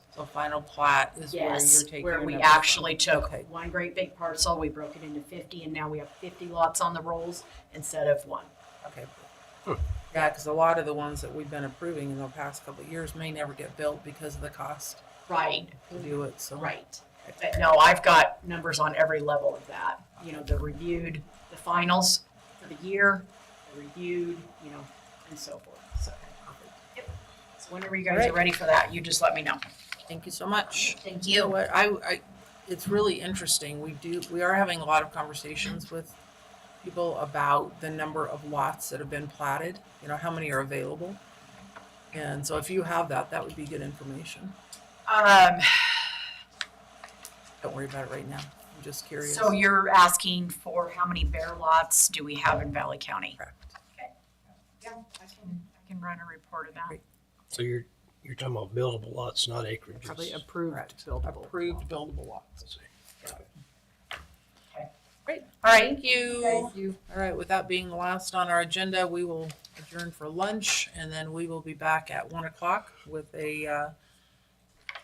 the final plat is where you're Yes, taking. where we another- actually took Okay, one great big parcel, we broke it into fifty, and now we have fifty lots on the rolls instead of one. okay. Yeah, because a lot of the ones that we've been approving in the past couple of years may never get built because of the cost Right, to do it, so. right. But no, I've got numbers on every level of that, you know, the reviewed, the finals for the year, the reviewed, you know, and so forth, so. Yep. So whenever you guys are Alright. ready for that, you just let me know. Thank you so much. Thank You know what, I, I, it's really interesting, we do, we are having a lot of conversations with people about the number of lots that have been platted, you know, how many are available. And so if you have that, that would be good information. Um, Don't worry about it right now, I'm just curious. so you're asking for how many bear lots do we have in Valley County? Correct. Yeah, I can, I can run a report of that. So you're, you're talking about buildable lots, not acreages. Probably approved buildable. Approved buildable lots. Let's see. All right, thank you. Thank you. All right, with that being last on our agenda, we will adjourn for lunch and then we will be back at one o'clock with a uh,